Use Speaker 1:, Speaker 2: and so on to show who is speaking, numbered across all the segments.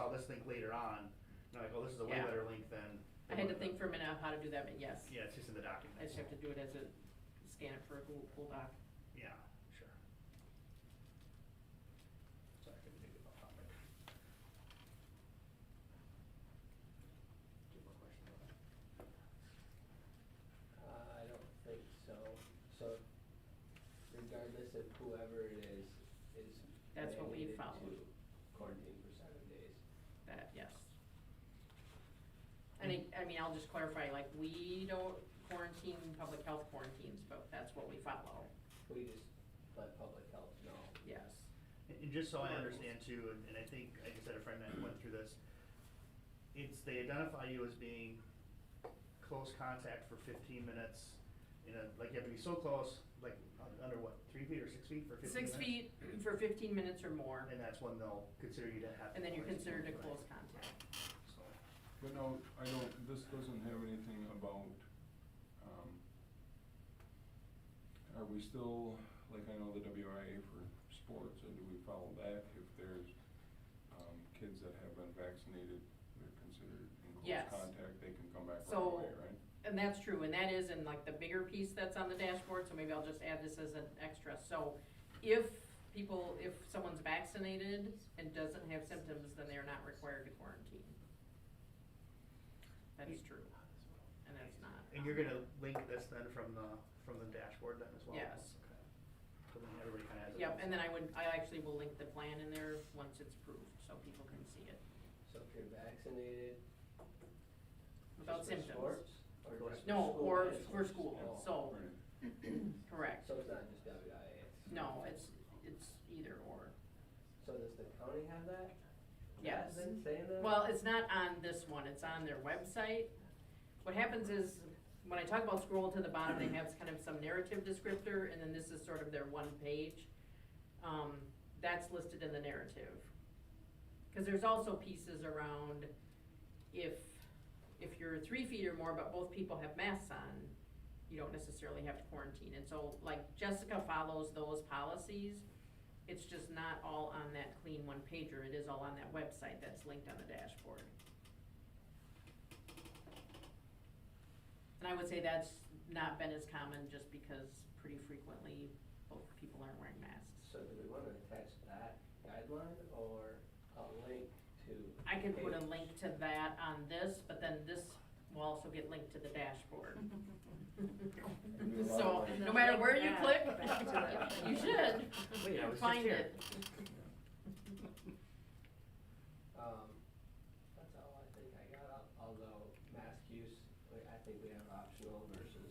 Speaker 1: us think later on, you know, like, oh, this is a way
Speaker 2: Yeah.
Speaker 1: better link than.
Speaker 2: I had to think for a minute of how to do that, but yes.
Speaker 1: Yeah, it's just in the document.
Speaker 2: I just have to do it as a, scan it for a Google Google Doc.
Speaker 1: Yeah, sure. Sorry, I couldn't think of a topic. Do you have a question about that?
Speaker 3: Uh, I don't think so. So regardless of whoever it is, is.
Speaker 2: That's what we
Speaker 3: mandated
Speaker 2: followed.
Speaker 3: to Quarantine for seven days.
Speaker 2: That, yes. And I, I mean, I'll just clarify, like, we don't quarantine public health quarantines, but that's what we follow,
Speaker 3: We just let public health know.
Speaker 2: yes.
Speaker 1: And and just so I understand too, and and I think, I just had a friend that went through this, it's, they identify you as being close contact for fifteen minutes, you know, like you have to be so close, like, un- under what, three feet or six feet for fifteen minutes?
Speaker 2: Six feet for fifteen minutes or more,
Speaker 1: And that's when they'll consider you to have.
Speaker 2: and then you're considered a
Speaker 1: Right.
Speaker 2: close contact.
Speaker 1: So,
Speaker 4: But no, I don't, this doesn't have anything about, um, are we still, like I know the WIA for sports, and do we follow that? If there's um, kids that have been vaccinated, they're considered in close
Speaker 2: Yes.
Speaker 4: contact, they can come back right
Speaker 2: So-
Speaker 4: away, right?
Speaker 2: And that's true, and that is in like the bigger piece that's on the dashboard, so maybe I'll just add this as an extra. So if people, if someone's vaccinated and doesn't have symptoms, then they are not required to quarantine. That is true, and that's not.
Speaker 1: and you're gonna link this then from the, from the dashboard then as well?
Speaker 2: Yes.
Speaker 1: Okay. So then everybody kind of has. it.
Speaker 2: Yep, and then I would, I actually will link the plan in there once it's approved, so people can see it
Speaker 3: So if you're vaccinated.
Speaker 2: without
Speaker 3: just for
Speaker 2: symptoms.
Speaker 3: sports Or just for
Speaker 2: No,
Speaker 3: school
Speaker 2: or
Speaker 3: management?
Speaker 2: for school,
Speaker 3: Oh.
Speaker 2: so, correct.
Speaker 3: So it's not just WIA? it's-
Speaker 2: No, it's, it's either or.
Speaker 3: So does the county have that?
Speaker 2: Yes.
Speaker 3: Has been saying that?
Speaker 2: Well, it's not on this one, it's on their website. What happens is, when I talk about scroll to the bottom, they have kind of some narrative descriptor, and then this is sort of their one page. Um, That's listed in the narrative. Because there's also pieces around if, if you're three feet or more, but both people have masks on, you don't necessarily have to quarantine. And so, like, Jessica follows those policies. It's just not all on that clean one pager. It is all on that website that's linked on the dashboard. And I would say that's not been as common just because pretty frequently both people aren't wearing masks.
Speaker 3: So do we want to attach that guideline or a link to?
Speaker 2: I can put a
Speaker 3: page?
Speaker 2: link to that on this, but then this will also get linked to the dashboard. So,
Speaker 4: And
Speaker 2: no
Speaker 5: then
Speaker 2: matter
Speaker 5: link
Speaker 2: where you
Speaker 5: that
Speaker 2: click,
Speaker 5: back to the-
Speaker 2: you should
Speaker 1: Wait, I was just
Speaker 2: find
Speaker 1: here.
Speaker 2: it.
Speaker 3: Um, That's all I think I got, al- although mask use, we- I think we have optional versus,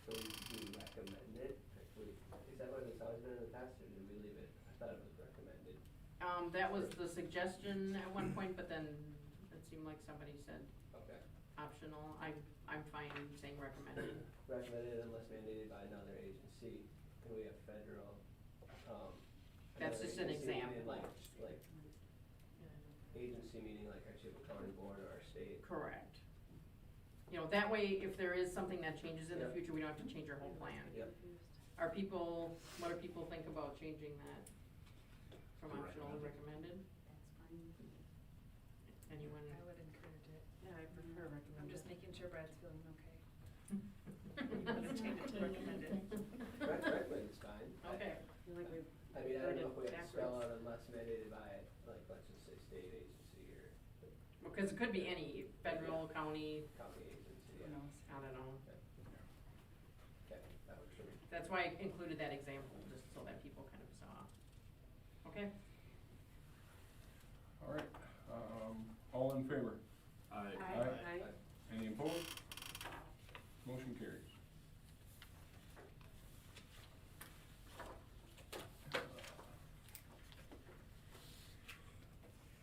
Speaker 3: so we do recommend it. Like, we- Is that what it's always been in the past, or did we leave it? I thought it was recommended.
Speaker 2: Um, that was the suggestion at one point, but then it seemed like somebody said
Speaker 3: Okay.
Speaker 2: optional. I'm, I'm fine saying recommended.
Speaker 3: Recommended unless mandated by another agency, and we have federal. um,
Speaker 2: That's
Speaker 3: another
Speaker 2: just an
Speaker 3: agency meaning
Speaker 2: example.
Speaker 3: Like, like agency meaning like our Chippewa County Board or our state.
Speaker 2: Correct. You know, that way, if there is something that changes in the
Speaker 3: Yep.
Speaker 2: future, we don't have to change our whole plan.
Speaker 3: Yep.
Speaker 2: Are people, what do people think about changing that from
Speaker 1: To
Speaker 2: optional to
Speaker 1: recommended.
Speaker 2: recommended?
Speaker 5: That's fine.
Speaker 2: Anyone?
Speaker 5: I would encourage it. Mm-hmm.
Speaker 6: Yeah, I prefer recommended.
Speaker 5: I'm just making sure Brad's feeling okay.
Speaker 2: Let's
Speaker 5: change it to recommended.
Speaker 3: Rec- Recommend is fine. I-
Speaker 2: Okay.
Speaker 6: I feel like we
Speaker 3: I mean, I don't know if we
Speaker 2: Worded
Speaker 3: have to spell out
Speaker 2: backwards.
Speaker 3: unless mandated by, like, let's just say state agency or
Speaker 2: Because it could be any, federal, county,
Speaker 3: county agency.
Speaker 6: who
Speaker 3: yeah.
Speaker 6: knows?
Speaker 2: I don't know.
Speaker 3: Okay. Okay, that works for me.
Speaker 2: That's why I included that example, just so that people kind of saw. Okay?
Speaker 4: All right, um, all in favor?
Speaker 5: Aye.
Speaker 3: Aye.
Speaker 4: Any opposed? Motion carries.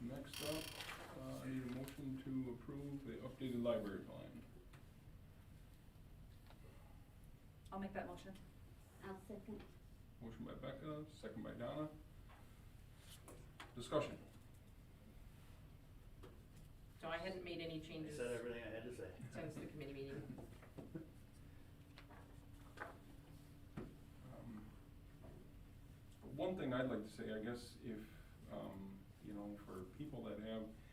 Speaker 4: Next up, uh, I need a motion to approve the updated library plan.
Speaker 6: I'll make that motion.
Speaker 5: I'll second.
Speaker 4: Motion by Becca, second by Donna. Discussion.
Speaker 2: So I hadn't made any
Speaker 1: I
Speaker 2: changes
Speaker 1: said everything I had to say.
Speaker 2: since the committee meeting.
Speaker 4: Um, One thing I'd like to say, I guess, if, um, you know, for people that have